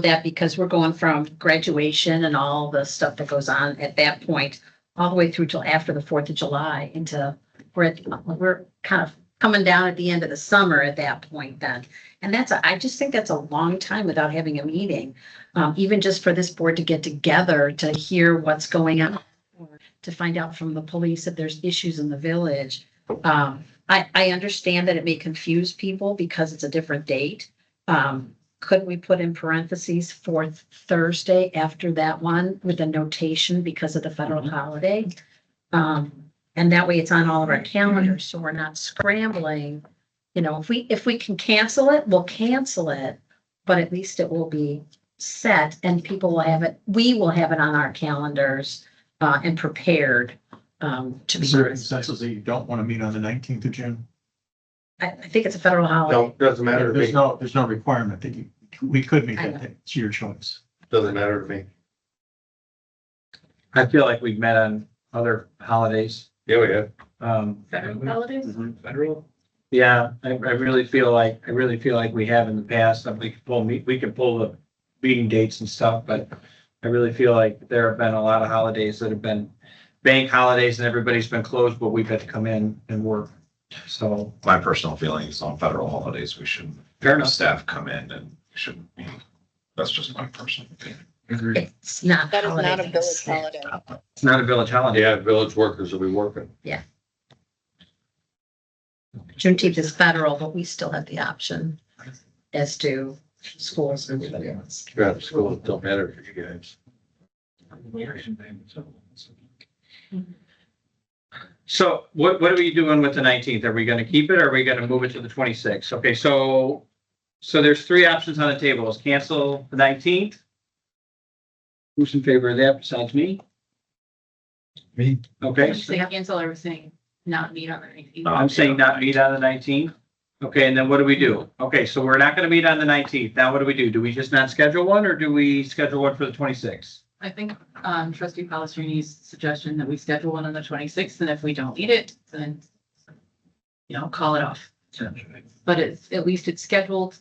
that because we're going from graduation and all the stuff that goes on at that point, all the way through till after the Fourth of July into, we're, at- we're kind of coming down at the end of the summer at that point then. And that's, a- I just think that's a long time without having a meeting, um, even just for this board to get together to hear what's going on. or To find out from the police if there's issues in the village. Um, I, I understand that it may confuse people because it's a different date. Um, could we put in parentheses fourth Thursday after that one with a notation because of the federal Mm-hmm. holiday? Um, and that way it's on all of our calendars, so we're not scrambling. You know, if we, if we can cancel it, we'll cancel it, but at least it will be set and people will have it, we will have it on our calendars uh, and prepared um, to be. Is there any consensus that you don't want to meet on the nineteenth of June? I, I think it's a federal holiday. No, doesn't matter to There's me, no, there's no requirement that you, we could meet I that day. It's your choice. doesn't matter to me. I feel like we've met on other holidays. Yeah, we have. Um, holidays? Mm-hmm. Federal? yeah, I, I really feel like, I really feel like we have in the past, that we can pull, me- we can pull the meeting dates and stuff, but I really feel like there have been a lot of holidays that have been bank holidays and everybody's been closed, but we've had to come in and work. So my personal feeling is on federal holidays, we shouldn't, fair enough. staff come in and we shouldn't, you know, that's just my personal opinion. It's not. That is not a holiday. village holiday. It's not a village holiday. Yeah, village workers will be working. Juneteenth is federal, but we still have the option as to schools and everybody else. You're out of school, it don't matter for you guys. So what, what are we doing with the nineteenth? Are we gonna keep it or are we gonna move it to the twenty-sixth? Okay, so, so there's three options on the table. Is cancel the nineteenth? Who's in favor of that besides me? Me. Okay, Just so say cancel everything, not meet on the nineteenth. Uh, I'm saying not meet on the nineteenth. Okay, and then what do we do? Okay, so we're not gonna meet on the nineteenth. Now what do we do? Do we just not schedule one or do we schedule one for the twenty-sixth? I think um trustee Palastrini's suggestion that we schedule one on the twenty-sixth, and if we don't need it, then you know, call it off. But it's, at least it's scheduled.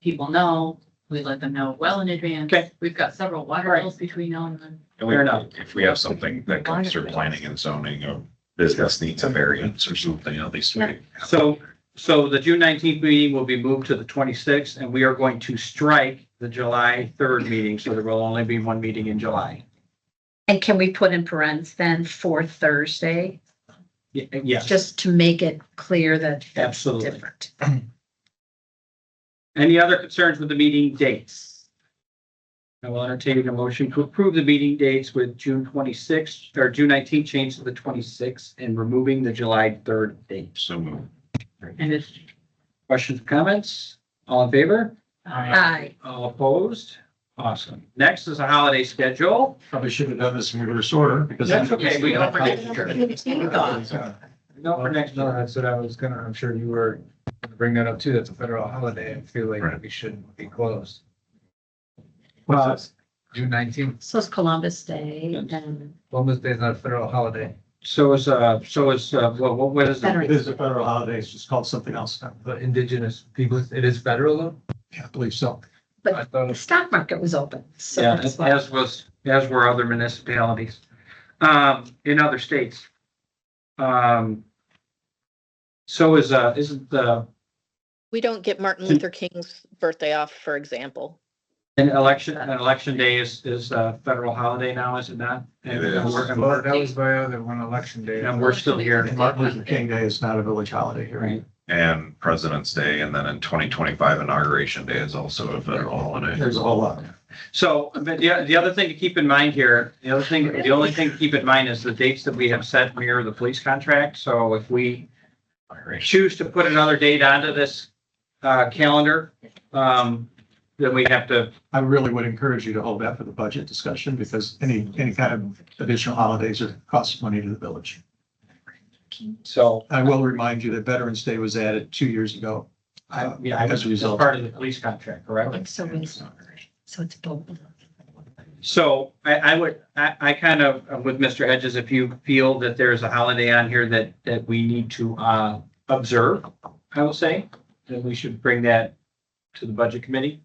People know, we let them know well in advance. Okay. We've got several water Right. bills between now and then. And we, Fair enough. if we have something that comes through planning and zoning or business needs a variance or something, at least we. So, so the June nineteenth meeting will be moved to the twenty-sixth, and we are going to strike the July third meeting, so there will only be one meeting in July. And can we put in parens then for Thursday, Ye- uh, Yes, just to make it clear that that's absolutely. different? Any other concerns with the meeting dates? I will entertain a motion to approve the meeting dates with June twenty-sixth, or June nineteenth changed to the twenty-sixth, and removing the July third date. So move. And it's, Questions, comments? All in favor? Aye. All opposed? Awesome. Next is a holiday schedule. Probably should have done this in reverse order because. That's okay, we don't forget. Uh, No, for next. No, that's what I was gonna, I'm sure you were gonna bring that up too. That's a federal holiday. I feel Right. like we shouldn't be closed. Well, June nineteenth, So it's Columbus Day and Columbus Day is not a federal holiday. So is, uh, so is, uh, what, what- what is it? It is a federal holiday. It's just called something else now. But indigenous people, it is federal though? Yeah, I believe so. I thought the it stock market was open. So Uh, Yeah, that's why. as was, as were other municipalities, um, in other states. Um. So is, uh, isn't the, We don't get Martin Hmm. Luther King's birthday off, for example. an election, an election day is, is a federal holiday now, is it not? And It is. we're- and Well, we're- that was my other one, election day. and we're still here, And Martin Luther King Day is not a village holiday here. right? And President's Day, and then in twenty twenty-five inauguration day is also a federal holiday. There's a whole lot. So, but the, the other thing to keep in mind here, the other thing, the only thing to keep in mind is the dates that we have set mirror the police contract. So if we Inauguration. choose to put another date onto this uh, calendar, um, then we have to, I really would encourage you to hold that for the budget discussion because any, any kind of additional holidays are costs money to the village. so. I will remind you that Veterans Day was added two years ago. I- uh, Yeah, I As was a it's result. part of the police contract, correct? So it's, so it's both. So I, I would, I, I kind of, I'm with Mr. Hedges, if you feel that there's a holiday on here that, that we need to uh, observe, I will say, then we should bring that to the budget committee.